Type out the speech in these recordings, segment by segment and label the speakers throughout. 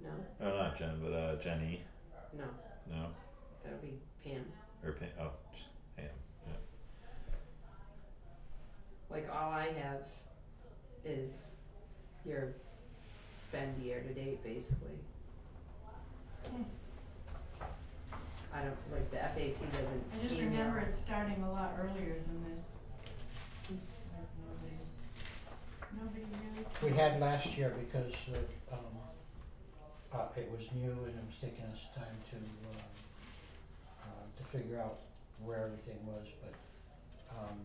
Speaker 1: No,
Speaker 2: Oh, not Jen, but uh, Jenny.
Speaker 1: no,
Speaker 2: No,
Speaker 1: that'll be Pam.
Speaker 2: or Pam. Oh, just Pam.
Speaker 1: Like all I have is your spend year to date basically. I don't, like the FAC doesn't
Speaker 3: I just
Speaker 1: email.
Speaker 3: remember it starting a lot earlier than this. It's like Nobody, nobody really.
Speaker 4: We had last year because uh, um, uh, it was new and it was taking us time to, um, uh, to figure out where everything was, but, um,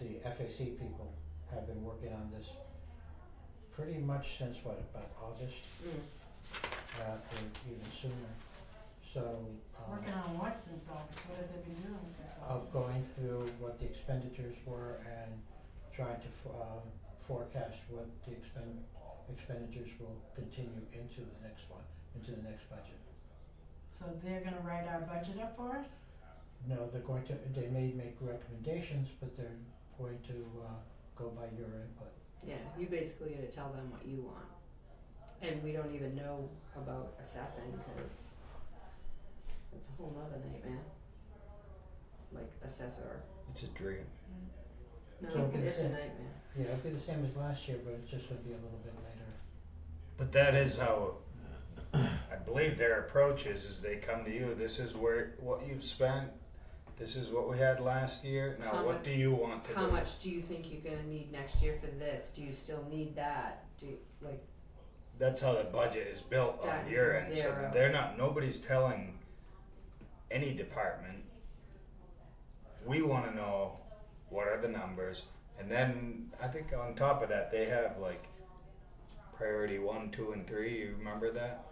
Speaker 4: the FAC people have been working on this pretty much since what, about August,
Speaker 1: Mm.
Speaker 4: uh, or even sooner, so, um,
Speaker 3: Working on what since August? What have they been doing since August?
Speaker 4: of going through what the expenditures were and trying to f- um, forecast what the expend expenditures will continue into the next one, into the next budget.
Speaker 3: So they're gonna write our budget up for us?
Speaker 4: No, they're going to, they may make recommendations, but they're going to uh, go by your input.
Speaker 1: Yeah, you basically gotta tell them what you want. And we don't even know about assessing, cause it's a whole nother nightmare. Like assessor,
Speaker 5: It's a dream.
Speaker 1: no,
Speaker 4: So-
Speaker 1: it's a nightmare,
Speaker 4: Yeah, it'll be the same as last year, but it's just gonna be a little bit later.
Speaker 5: But that is how I believe their approach is: is they come to you. This is where what you've spent. This is what we had last year. Now,
Speaker 1: How
Speaker 5: what
Speaker 1: much-
Speaker 5: do you want to
Speaker 1: how
Speaker 5: do?
Speaker 1: much do you think you're gonna need next year for this, do you still need that, do you, like,
Speaker 5: That's how the budget is built
Speaker 1: Starting
Speaker 5: on your
Speaker 1: from
Speaker 5: end.
Speaker 1: zero.
Speaker 5: So they're not. Nobody's telling any department. We want to know what are the numbers, and then I think on top of that they have like priority one, two, and three. You remember that?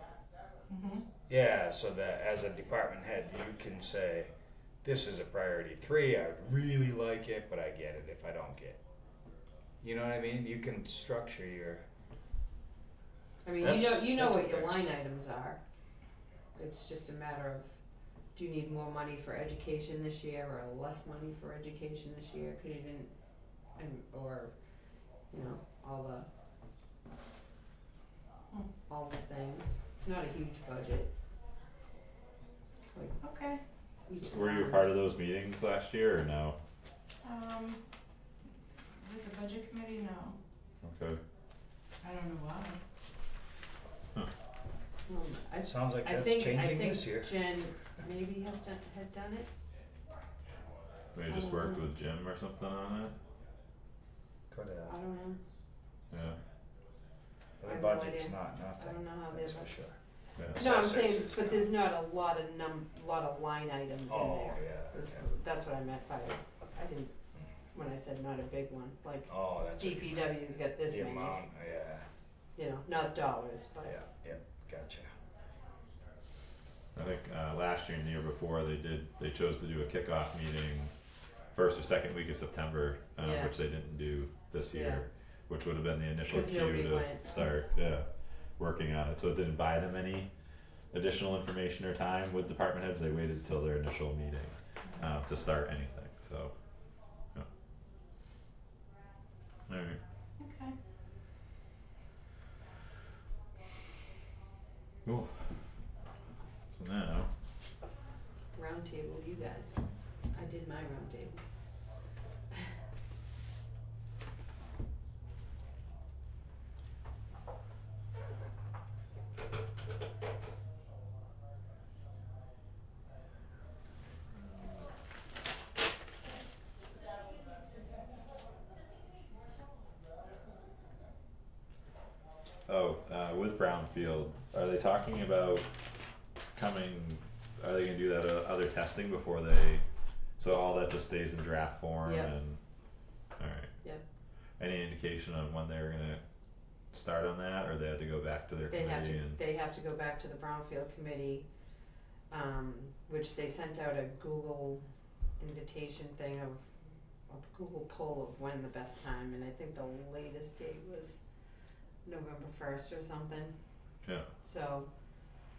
Speaker 3: Mm-hmm.
Speaker 5: Yeah, so that as a department head, you can say, this is a priority three. I would really like it, but I get it if I don't get. You know what I mean? You can structure your.
Speaker 1: I mean, you know,
Speaker 5: That's-
Speaker 1: you know
Speaker 5: that's
Speaker 1: what your
Speaker 5: okay.
Speaker 1: line items are. It's just a matter of, do you need more money for education this year or less money for education this year, cause you didn't, and, or, you know, all the.
Speaker 3: Hmm.
Speaker 1: All the things, it's not a huge budget,
Speaker 3: Okay,
Speaker 1: each
Speaker 2: So were you a part of those meetings last year or no?
Speaker 3: um, with the budget committee, no,
Speaker 2: Okay.
Speaker 3: I don't know why.
Speaker 1: Um, I,
Speaker 5: Sounds like
Speaker 1: I
Speaker 5: that's
Speaker 1: think, I
Speaker 5: changing
Speaker 1: think
Speaker 5: this year.
Speaker 1: Jen maybe have done, had done it,
Speaker 2: They just worked with Jim or something on it.
Speaker 5: Could
Speaker 1: I don't know,
Speaker 2: Yeah.
Speaker 1: I
Speaker 5: The
Speaker 1: have no
Speaker 5: budget's
Speaker 1: idea.
Speaker 5: not
Speaker 1: I don't
Speaker 5: nothing.
Speaker 1: know how they.
Speaker 5: That's for sure.
Speaker 1: No, I'm
Speaker 5: Assessors
Speaker 1: saying,
Speaker 5: is
Speaker 1: but
Speaker 5: not-
Speaker 1: there's not a lot of num, lot of line items in
Speaker 5: Oh
Speaker 1: there.
Speaker 5: yeah.
Speaker 1: That's,
Speaker 5: yeah.
Speaker 1: that's what I meant by, I didn't, when I said not a big one, like
Speaker 5: Oh, that's what you meant.
Speaker 1: DPW's got this
Speaker 5: the
Speaker 1: many,
Speaker 5: amount. Yeah,
Speaker 1: you know, not dollars,
Speaker 5: yeah,
Speaker 1: but,
Speaker 5: yeah. Gotcha.
Speaker 2: I think uh, last year and the year before they did. They chose to do a kickoff meeting first or second week of September, um,
Speaker 1: Yeah.
Speaker 2: which they didn't do this
Speaker 1: Yeah.
Speaker 2: year, which would have been the initial
Speaker 1: 'Cause
Speaker 2: cue
Speaker 1: nobody
Speaker 2: to
Speaker 1: went.
Speaker 2: start yeah, working on it. So it didn't buy them any additional information or time with department heads. They waited till their initial meeting uh, to start anything. So, yeah. All right.
Speaker 3: Okay,
Speaker 2: Cool. So now,
Speaker 1: roundtable, you guys, I did my roundtable.
Speaker 2: oh, uh, with Brownfield, are they talking about coming? Are they gonna do that uh, other testing before they? So all that just stays in draft form
Speaker 1: Yep.
Speaker 2: and. All right.
Speaker 1: Yep.
Speaker 2: Any indication on when they were gonna start on that, or they had to go back to their
Speaker 1: They have
Speaker 2: committee
Speaker 1: to,
Speaker 2: and?
Speaker 1: they have to go back to the Brownfield Committee, um, which they sent out a Google invitation thing of, a Google poll of when the best time, and I think the latest date was November first or something.
Speaker 2: Yeah.
Speaker 1: So,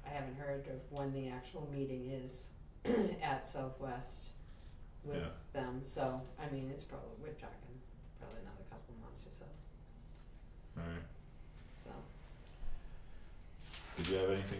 Speaker 1: I haven't heard of when the actual meeting is at Southwest with
Speaker 2: Yeah.
Speaker 1: them, so, I mean, it's probably, we're talking probably another couple months or so,
Speaker 2: All right.
Speaker 1: so.
Speaker 2: Did you have anything